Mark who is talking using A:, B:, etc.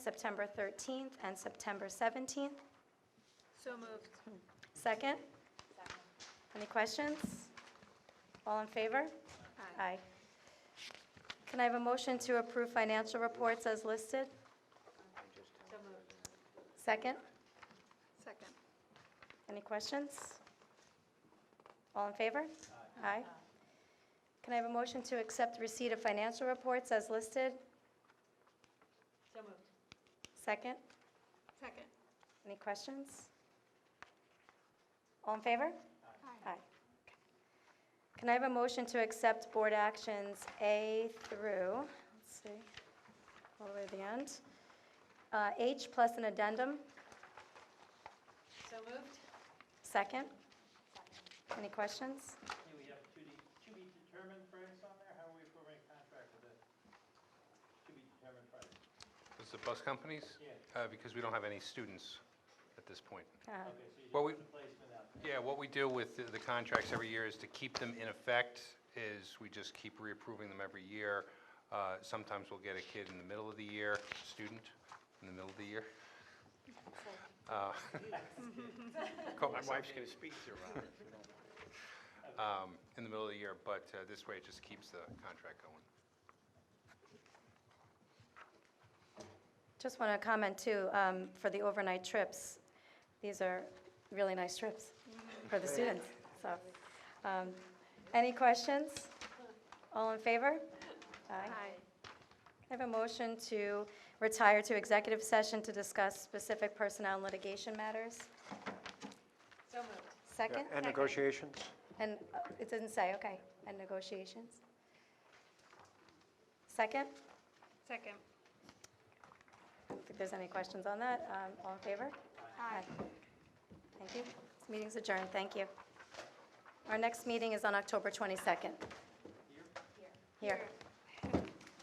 A: September 13th and September 17th.
B: So moved.
A: Second? Any questions? All in favor?
B: Aye.
A: Aye. Can I have a motion to approve financial reports as listed? Second?
B: Second.
A: Any questions? All in favor? Aye. Can I have a motion to accept receipt of financial reports as listed?
B: So moved.
A: Second?
B: Second.
A: Any questions? All in favor? Aye. Can I have a motion to accept board actions A through, let's see, all the way to the end, Uh, H plus an addendum?
B: So moved.
A: Second? Any questions?
C: Yeah, we have to be, to be determined price on there, how are we forming a contract with it? To be determined price.
D: Is the bus companies?
C: Yeah.
D: Uh, Because we don't have any students at this point.
A: Uh,
C: Okay, so you
D: Well,
C: just
D: we-
C: put the placement out.
D: Yeah, what we do with the- the contracts every year is to keep them in effect, is we just keep reapproving them every year. Uh, Sometimes we'll get a kid in the middle of the year, student in the middle of the year. Uh, caught
E: My
D: Uh, myself.
E: wife's going to speak to Robert.
D: Um, In the middle of the year, but uh, this way it just keeps the contract going.
A: Just want to comment too, um, for the overnight trips, these are really nice trips for the students, so. um, Any questions? All in favor? Aye. I have a motion to retire to executive session to discuss specific personnel and litigation matters.
B: So moved.
A: Second?
E: And negotiations?
A: And uh, it doesn't say, okay, and negotiations. Second?
B: Second.
A: If there's any questions on that, um, all in favor? Aye. Thank you. This meeting's adjourned, thank you. Our next meeting is on October 22nd. Here? Here.